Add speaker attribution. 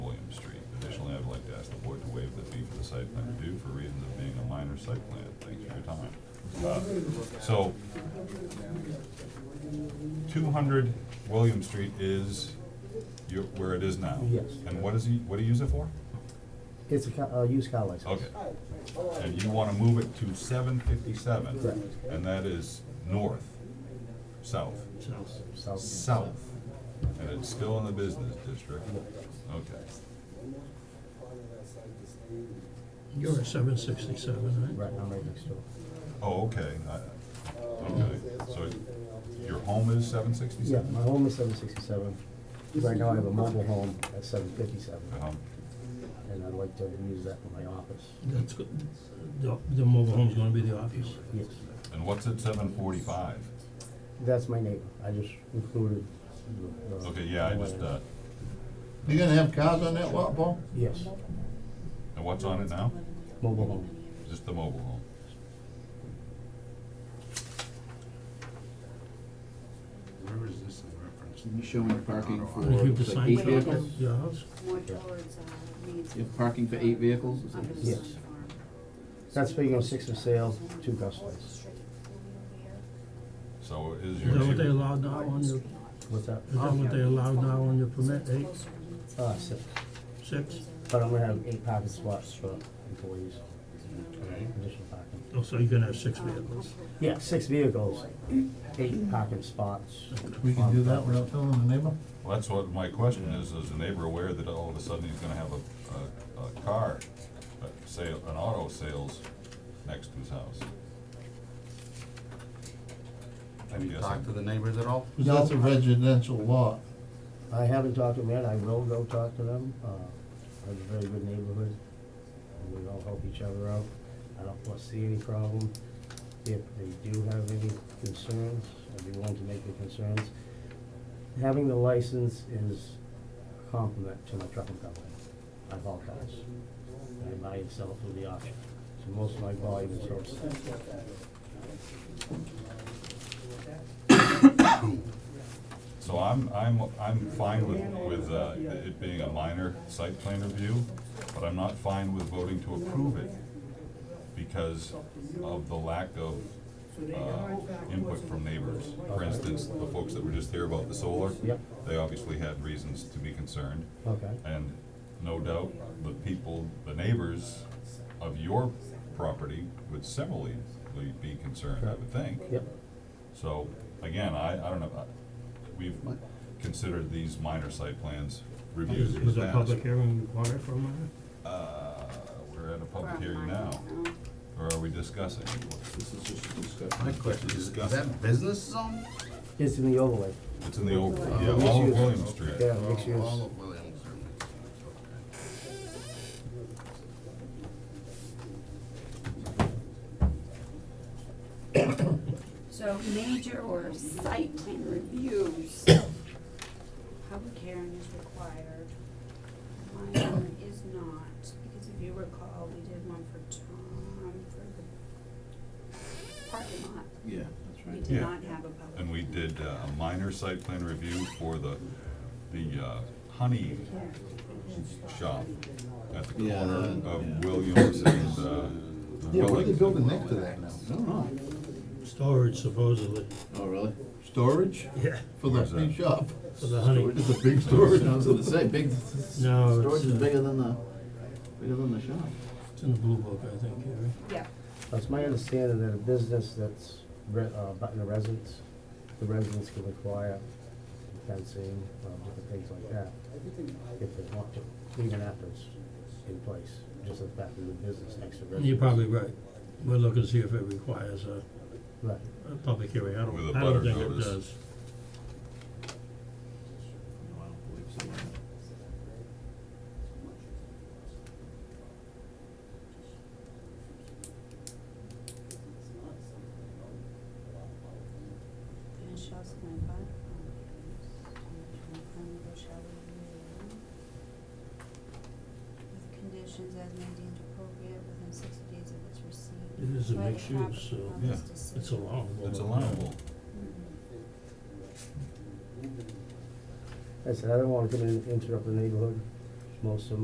Speaker 1: site plan review for reasons of being a minor site plan, thanks for your time. Uh, So, two hundred William Street is your, where it is now?
Speaker 2: Yes.
Speaker 1: And what is he, what do you use it for?
Speaker 2: It's a, co- a used car license.
Speaker 1: Okay. And you wanna move it to seven
Speaker 2: Correct.
Speaker 1: fifty-seven, and that is north, south?
Speaker 2: So,
Speaker 1: South, and it's still in the business district? Okay.
Speaker 3: You're at seven
Speaker 1: Mm-hmm.
Speaker 3: sixty-seven, right?
Speaker 2: right, I'm right next door.
Speaker 1: Oh, okay, I, okay, so your home is seven
Speaker 2: Yeah,
Speaker 1: sixty-seven?
Speaker 2: my home is seven sixty-seven. Right now I have a mobile home at seven fifty-seven,
Speaker 1: Um,
Speaker 2: and I'd like to use that for my office.
Speaker 3: That's good. The, the mobile home's gonna be the office.
Speaker 2: Yes,
Speaker 1: and what's at seven forty-five?
Speaker 2: that's my neighbor. I just included the. the-
Speaker 1: Okay, yeah, I just, uh,
Speaker 4: You gonna have cars on that lot, Paul?
Speaker 2: Yes,
Speaker 1: and what's on it now?
Speaker 2: mobile home.
Speaker 1: Just the mobile home?
Speaker 5: Where is this in reference?
Speaker 6: Can you show me parking for
Speaker 3: If you have the
Speaker 6: like
Speaker 3: sign
Speaker 6: eight
Speaker 3: for
Speaker 6: vehicles?
Speaker 3: your house,
Speaker 7: More towards, uh, Reed's.
Speaker 6: You have parking for eight vehicles? Is that-
Speaker 7: Under the
Speaker 2: Yes.
Speaker 7: Sun Farm.
Speaker 2: That's figuring six for sale, two customers.
Speaker 1: So is
Speaker 3: is
Speaker 1: your
Speaker 3: that what they
Speaker 1: neighbor,
Speaker 3: allow now on your, is
Speaker 2: What's that?
Speaker 1: Mm-hmm.
Speaker 3: that what they allow now on your permit, eh? eight,
Speaker 2: Uh, six,
Speaker 3: six?
Speaker 7: Uh,
Speaker 2: but I'm gonna have eight parking spots for employees,
Speaker 5: Okay.
Speaker 2: additional parking.
Speaker 3: Oh, so you're gonna have six vehicles.
Speaker 2: Yeah, six vehicles, eight parking spots.
Speaker 4: We can do that without telling the neighbor?
Speaker 1: well, that's what my question is, is the neighbor aware that all of a sudden he's gonna have a, a, a car, a sale, an auto sales next to his house?
Speaker 5: Have you
Speaker 1: Yes.
Speaker 5: talked to the neighbors at all?
Speaker 4: Cause that's a residential lot.
Speaker 2: I haven't talked to them yet, I will go talk to them, uh, it's a very good neighborhood, and we all help each other out. I don't foresee any problem, if they do have any concerns, I'd be willing to make the concerns. Having the license is a compliment to my trucking company, I haul cars, and I buy and sell through the auction, so most of my volume is sourced.
Speaker 1: So I'm, I'm, I'm fine with, with uh, it being a minor site plan review, but I'm not fine with voting to approve it because of the lack of, uh, input from neighbors. For instance, the folks that were just here about the solar.
Speaker 2: Yep.
Speaker 1: They obviously had reasons to be concerned,
Speaker 2: Okay,
Speaker 1: and no doubt, the people, the neighbors of your property would similarly be concerned, I would think.
Speaker 2: yep,
Speaker 1: So, again, I, I don't know, I- we've considered these minor site plans
Speaker 3: Is,
Speaker 1: reviews in
Speaker 3: is
Speaker 1: the
Speaker 3: a
Speaker 1: past.
Speaker 3: public hearing required for a minor?
Speaker 1: Uh, we're at a public hearing
Speaker 7: uh,
Speaker 1: now, or are we discussing?
Speaker 6: This is just a discussion.
Speaker 5: My question is, is that business zone?
Speaker 2: it's in the overlay,
Speaker 1: It's in the overlay, yeah,
Speaker 2: Uh,
Speaker 1: all of
Speaker 2: mixed
Speaker 1: William
Speaker 2: use.
Speaker 1: Street.
Speaker 2: Yeah, mixed use.
Speaker 5: All of Williams are mixed use, okay.
Speaker 7: So major or site plan reviews, public hearing is required. Minor is not, because if you recall, we did one for Tom for the parking lot.
Speaker 6: Yeah, that's
Speaker 7: We
Speaker 6: right.
Speaker 7: did
Speaker 1: Yeah.
Speaker 7: not have a public.
Speaker 1: And we did uh, a minor site plan review for the, the uh, honey shop at the
Speaker 6: Yeah,
Speaker 1: corner
Speaker 6: that- yeah.
Speaker 1: of Williams and, uh.
Speaker 4: Yeah, what are they
Speaker 1: Wellington.
Speaker 4: building next to that now?
Speaker 6: I don't know.
Speaker 3: Storage supposedly,
Speaker 6: Oh, really?
Speaker 4: Storage
Speaker 3: yeah,
Speaker 4: for the
Speaker 1: Where's that?
Speaker 4: big shop?
Speaker 3: for the honey.
Speaker 4: It's a big storage.
Speaker 6: I was gonna say, big,
Speaker 3: No,
Speaker 6: storage is
Speaker 3: it's, uh,
Speaker 6: bigger than the, bigger than the shop.
Speaker 3: it's in the blue book, I think, Gary.
Speaker 7: Yeah,
Speaker 2: It's my understanding that a business that's, re- uh, button a residence, the residents can require fencing, um, different things like that, if they want to, even after it's in place, just the fact that the business next to residence.
Speaker 3: You're probably right. We're looking to see if it requires a,
Speaker 2: Right,
Speaker 3: a public hearing. I
Speaker 1: With
Speaker 3: don't,
Speaker 1: a
Speaker 3: I don't
Speaker 1: butter
Speaker 3: think it
Speaker 1: notice.
Speaker 3: does.
Speaker 6: No, I don't believe so.
Speaker 7: and shall submit by. With conditions as may deemed appropriate within sixty days of its receipt.
Speaker 3: It is a
Speaker 7: by the
Speaker 3: mixed use, so-
Speaker 7: applicant on this
Speaker 1: Yeah.
Speaker 7: decision.
Speaker 3: It's allowable.
Speaker 1: It's allowable.
Speaker 7: Mhm.
Speaker 2: I said, I don't wanna come in and interrupt the neighborhood, most of